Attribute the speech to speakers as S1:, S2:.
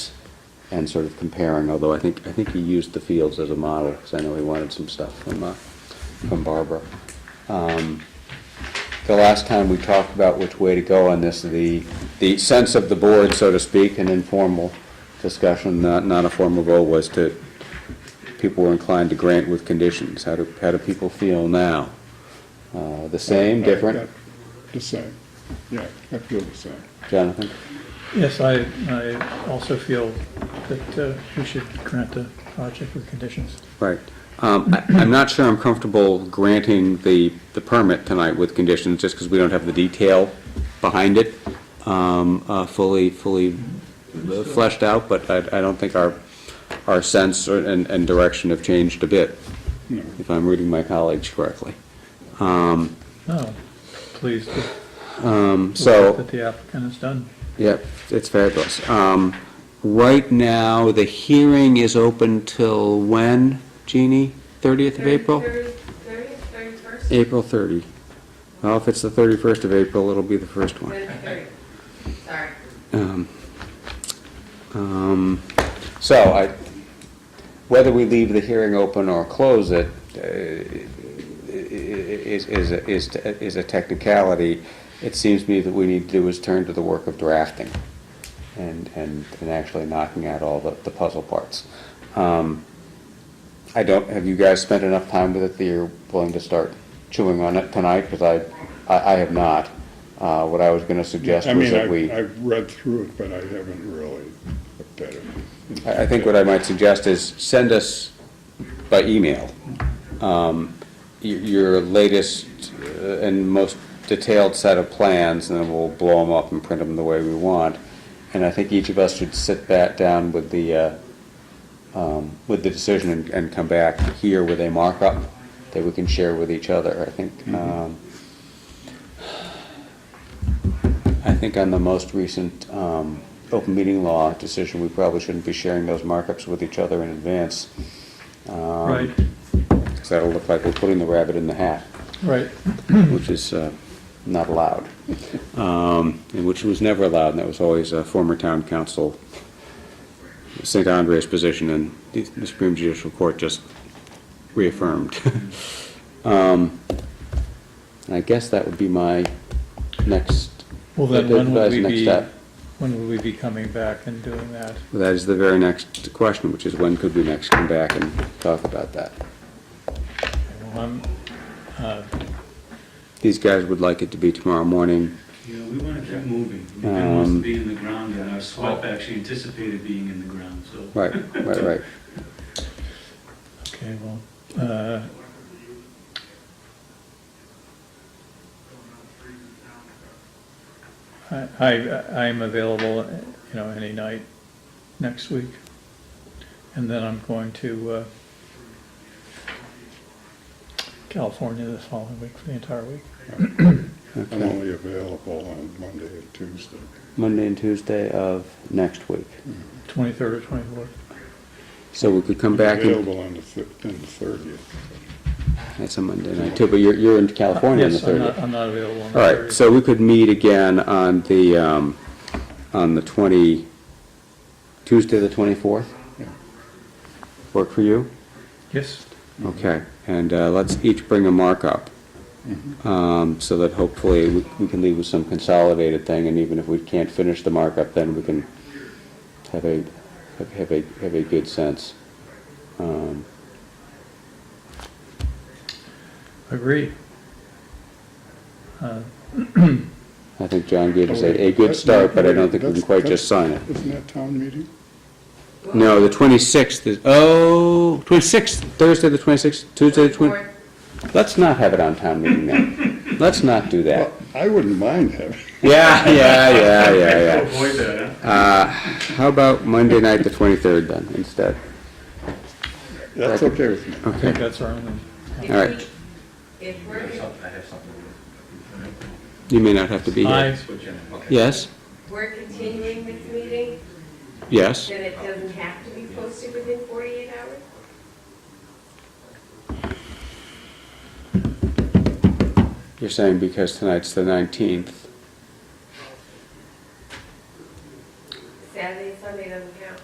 S1: and sort of comparing, although I think, I think he used the fields as a model, because I know he wanted some stuff from, uh, from Barbara. Um, The last time we talked about which way to go on this, the, the sense of the board, so to speak, an informal discussion, not, not a formal vote, was to, people were inclined to grant with conditions. How do, how do people feel now? Uh, The same, different?
S2: The same, yeah, I feel the same.
S1: Jonathan?
S3: Yes, I, I also feel that uh, we should grant the project with conditions.
S1: Right. Um, I- I'm not sure I'm comfortable granting the, the permit tonight with conditions, just because we don't have the detail behind it um, uh, fully, fully fleshed out, but I, I don't think our, our sense or- and, and direction have changed a bit,
S2: No,
S1: if I'm reading my colleagues correctly.
S3: No, pleased with
S1: Um,
S3: the
S1: So.
S3: work that the applicant has done.
S1: Yep, it's fabulous. Um, Right now, the hearing is open till when, Jeannie? 30th of April?
S4: Thirtieth, thirty-first?
S1: April 30. Well, if it's the 31st of April, it'll be the first one.
S4: Thirty, sorry.
S1: Um, um, So I, whether we leave the hearing open or close it uh, i- i- is, is, a- is, a- is a technicality. It seems to me that we need to do is turn to the work of drafting and, and, and actually knocking out all the, the puzzle parts. Um, I don't, have you guys spent enough time with it that you're willing to start chewing on it tonight? Because I, I, I have not. Uh, what I was gonna suggest
S2: I
S1: was
S2: mean,
S1: that we.
S2: I- I've read through it, but I haven't really looked at it.
S1: I I think what I might suggest is send us by email um, y- your latest uh, and most detailed set of plans, and then we'll blow them up and print them the way we want. And I think each of us should sit back down with the, uh, um, with the decision and- and come back here with a markup that we can share with each other, I think. um, I think on the most recent um, open meeting law decision, we probably shouldn't be sharing those markups with each other in advance. um,
S3: Right,
S1: Because that'll look like we're putting the rabbit in the hat,
S3: right. Hmm.
S1: which is uh, not allowed. Um, And which was never allowed, and that was always a former town council, St. Andre's position, and the- the Supreme Judicial Court just reaffirmed. Um, And I guess that would be my next,
S3: Well, then when would
S1: advice,
S3: we
S1: next
S3: be,
S1: step.
S3: when would we be coming back and doing that?
S1: Well, That is the very next question, which is when could we next come back and talk about that?
S3: Well, I'm, uh,
S1: These guys would like it to be tomorrow morning.
S5: Yeah, we want to keep moving. We don't want
S1: Um,
S5: to be in the ground, and our swap actually anticipated being in the ground, so.
S1: Right, right, right.
S3: okay, well, uh, I, I, I'm available, you know, any night next week. And then I'm going to, uh, California the following week for the entire week.
S2: I'm only available on Monday and Tuesday.
S1: Monday and Tuesday of next week.
S3: Twenty-third or twenty-fourth.
S1: So we could come back, and
S2: Available on the fif- on the thirtieth.
S1: that's a Monday night too, but you're, you're in California on the
S3: Yes, I'm not,
S1: 30th.
S3: I'm not available on the
S1: All right,
S3: 30th.
S1: so we could meet again on the, um, on the 20, Tuesday, the 24th?
S2: Yeah.
S1: Work for you?
S3: Yes,
S1: Okay, and uh, let's each bring a markup, um, so that hopefully we we can leave with some consolidated thing, and even if we can't finish the markup, then we can have a, have- have a, have a good sense. Um,
S3: agreed. Uh,
S1: I think John gave us a, a good start, but I don't think we can quite just sign it.
S2: Isn't that town meeting?
S1: No, the 26th is, oh, 26th, Thursday the 26th, Tuesday the 20th. Let's not have it on town meeting night. Let's not do that.
S2: Well, I wouldn't mind having,
S1: Yeah, yeah, yeah, yeah, yeah.
S5: Avoid that, huh?
S1: Uh, How about Monday night, the 23rd then, instead?
S2: that's okay with me.
S3: I think that's our only,
S4: If
S1: All right.
S4: we- If we're,
S1: You may not have to be here.
S3: I,
S1: Yes,
S4: we're continuing this meeting,
S1: yes.
S4: then it doesn't have to be posted within forty-eight hours?
S1: You're saying because tonight's the 19th,